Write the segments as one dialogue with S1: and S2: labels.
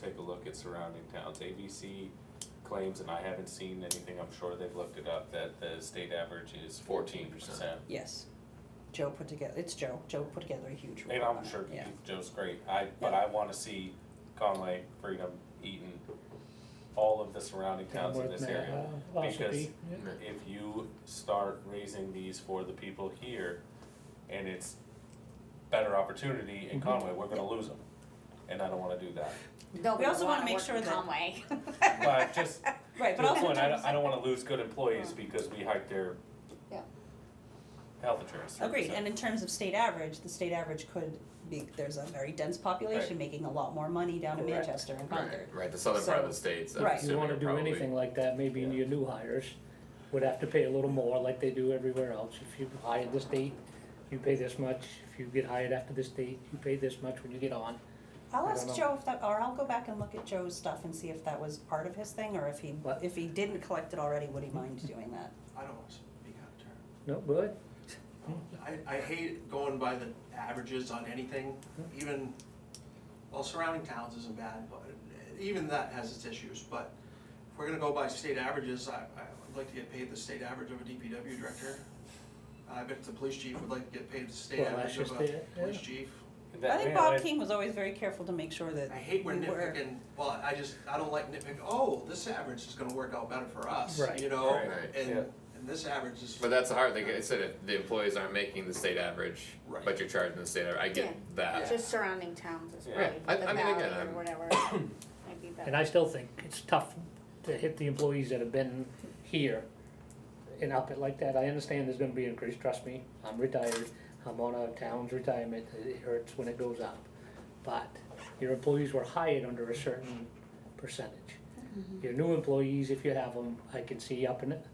S1: take a look at surrounding towns. ABC claims, and I haven't seen anything, I'm sure they've looked it up, that the state average is fourteen percent.
S2: Yes. Joe put together, it's Joe, Joe put together a huge report
S1: And
S2: on
S1: I'm
S2: it,
S1: sure
S2: yeah.
S1: Joe's great, I, but I wanna see Conway, Freedom, Eaton, all of the surrounding towns in this
S3: uh,
S1: area. because- If you start raising these for the people here, and it's better opportunity in
S3: Mhm.
S1: Conway, we're gonna lose them, and I don't wanna do that.
S4: No,
S2: We
S4: we
S2: also
S4: don't
S2: wanna
S4: wanna
S2: make
S4: work
S2: sure
S4: in
S2: that-
S4: Conway.
S1: But just,
S2: Right,
S1: To
S2: but
S1: the
S2: also
S1: point, I
S2: in
S1: don't,
S2: terms,
S1: I don't wanna lose good employees because we hiked their
S4: Yeah.
S1: health insurance. three
S2: agreed,
S1: percent.
S2: and in terms of state average, the state average could be, there's a very dense population making a lot more money down in
S1: Correct.
S2: Manchester and
S5: Right,
S2: Concord.
S5: right, the southern part of the
S2: So-
S5: states, I'm
S2: right.
S3: If you
S5: assuming
S3: wanna
S5: are
S3: do
S5: probably-
S3: anything like that, maybe
S1: Yeah.
S3: your new hires would have to pay a little more like they do everywhere else. If you hire this date, you pay this much. If you get hired after this date, you pay this much when you get on.
S2: I'll
S3: I
S2: ask
S3: don't
S2: Joe if that, or I'll go back and look at Joe's stuff and see if that was part of his thing, or if he,
S3: What?
S2: if he didn't collect it already, would he mind doing that?
S6: I don't want to speak out of
S3: No, good?
S6: turn.
S3: Hmm.
S6: I, I hate going by the averages on anything,
S3: Hmm.
S6: even, well, surrounding towns isn't bad, but even that has its issues, but if we're gonna go by state averages, I, I would like to get paid the state average of a DPW director. I bet the police chief would like to get paid the state
S3: Well,
S6: average
S3: that's
S6: of
S3: just
S6: a
S3: it,
S6: police
S3: yeah.
S6: chief.
S2: I
S1: That-
S2: think
S1: yeah,
S2: Bob
S1: that-
S2: King was always very careful to make sure that
S6: I hate when
S2: we were-
S6: nitpicking, well, I just, I don't like nitpicking, oh, this average is gonna work out better for us,
S3: Right.
S6: you know?
S1: Right,
S5: right,
S6: And,
S1: yeah.
S6: and this average is.
S5: But that's hard, like I said, if the employees aren't making the state average,
S6: Right.
S5: but you're charging the state average, I
S4: Yeah.
S5: get that.
S4: Just surrounding towns is
S1: Yeah.
S4: probably
S5: I-
S4: the
S5: I mean, again,
S4: valley or
S5: I'm-
S4: whatever, might be better.
S3: And I still think it's tough to hit the employees that have been here and up it like that. I understand there's gonna be an increase, trust me, I'm retired, I'm on a town's retirement, it hurts when it goes up. But your employees were hired under a certain percentage.
S2: Mm-hmm.
S3: Your new employees, if you have them, I can see up in it.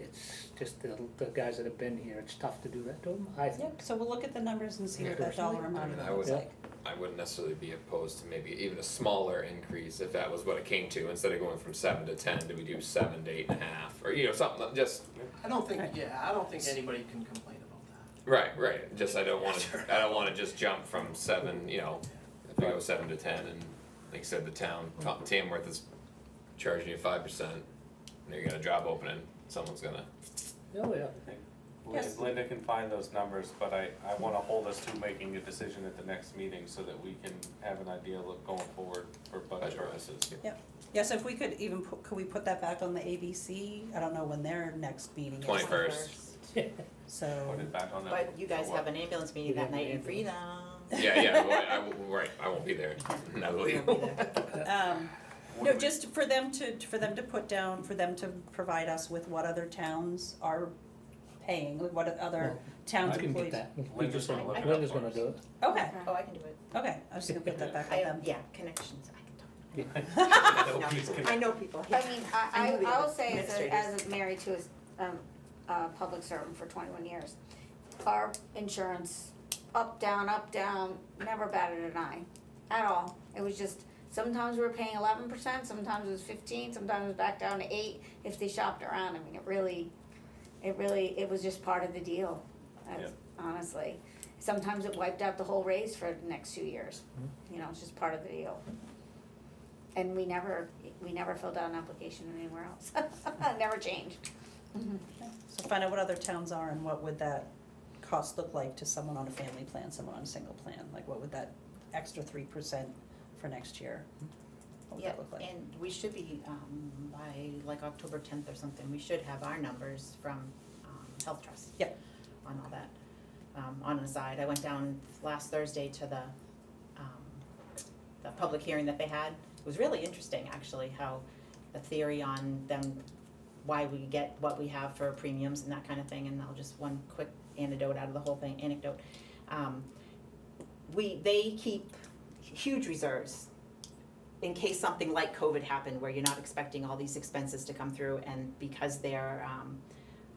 S3: It's just the, the guys that have been here, it's tough to do that to them, I think.
S2: Yep, so we'll look at the numbers and see what that
S3: Personally,
S2: dollar
S5: I
S2: amount
S5: mean, I
S2: looks
S5: would-
S2: like.
S5: I wouldn't necessarily be opposed to maybe even a smaller increase if that was what it came to, instead of going from seven to ten, do we do seven to eight and a half, or, you know, something, like- just,
S6: I don't think,
S2: Right.
S6: yeah, I don't think anybody can complain about that.
S5: right, right, just I don't wanna, I don't wanna just jump from seven, you know, if we go seven to ten, and like I said, the town, Tom- Tamworth is charging you five percent, and you're gonna job opening, someone's gonna,
S3: Oh, yeah.
S2: Yes.
S1: Linda can find those numbers, but I, I wanna hold us to making a decision at the next meeting so that we can have an idea look going forward for budget
S5: Budget.
S1: purposes.
S2: Yes, if we could even, put could we put that back on the ABC? I don't know when their next meeting is.
S5: 21st.
S2: So,
S1: Put it back on that.
S7: But you guys
S1: for what?
S7: have an ambulance meeting
S3: We
S7: that
S3: have an
S7: night in Freedom.
S3: ambulance.
S7: Oh,
S5: yeah, yeah, well, I, I will- right, I won't be there, no, leave.
S2: um,
S1: What
S2: no,
S1: do we-
S2: just for them to, for them to put down, for them to provide us with what other towns are paying, like what other towns
S3: I can
S2: employees.
S3: get that.
S1: Linda's gonna look it up
S3: Linda's
S1: for
S3: gonna
S1: us.
S3: do it.
S2: Okay,
S7: Oh, I can do it.
S2: okay, I was just gonna put that back
S7: I
S2: on them.
S7: have, yeah, connections, I can talk.
S1: I know
S7: No.
S1: he's gonna-
S7: I know people.
S4: I mean, I,
S7: know the
S4: I, I will say as a,
S7: administrators.
S4: as a married to a, s- um, a public servant for twenty-one years, our insurance, up, down, up, down, never batted an eye, at all. It was just, sometimes we were paying eleven percent, sometimes it was fifteen, sometimes it was back down to eight, if they shopped around, I mean, it really, it really, it was just part of the deal, that's, honestly. Sometimes it wiped out the whole raise for the next two years, you know, it's just part of the deal. And we never, we never filled out an application anywhere else. Never changed.
S2: So find out what other towns are and what would that cost look like to someone on a family plan, someone on a single plan? Like what would that extra three percent for next year, what would
S7: Yeah,
S2: that look like?
S7: and we should be, um, by like October tenth or something, we should have our numbers from, um, Health Trust.
S2: Yep.
S7: On all that. Um, on an aside, I went down last Thursday to the, um, the public hearing that they had. It was really interesting, actually, how the theory on them, why we get what we have for premiums and that kind of thing, and I'll just, one quick anecdote out of the whole thing, anecdote. Um, we, they keep huge reserves in case something like COVID happened where you're not expecting all these expenses to come through and because they're um,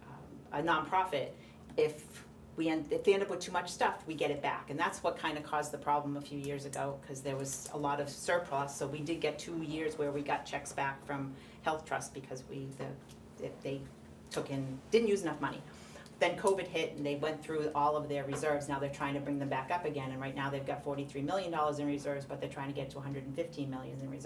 S7: um, a nonprofit, if we end, if they end up with too much stuff, we get it back. And that's what kind of caused the problem a few years ago because there was a lot of surplus. So we did get two years where we got checks back from Health Trust because we, the, if they took in, didn't use enough money. Then COVID hit and they went through all of their reserves. Now they're trying to bring them back up again. And right now they've got forty-three million dollars in reserves, but they're trying to get to hundred and fifteen million in reserves.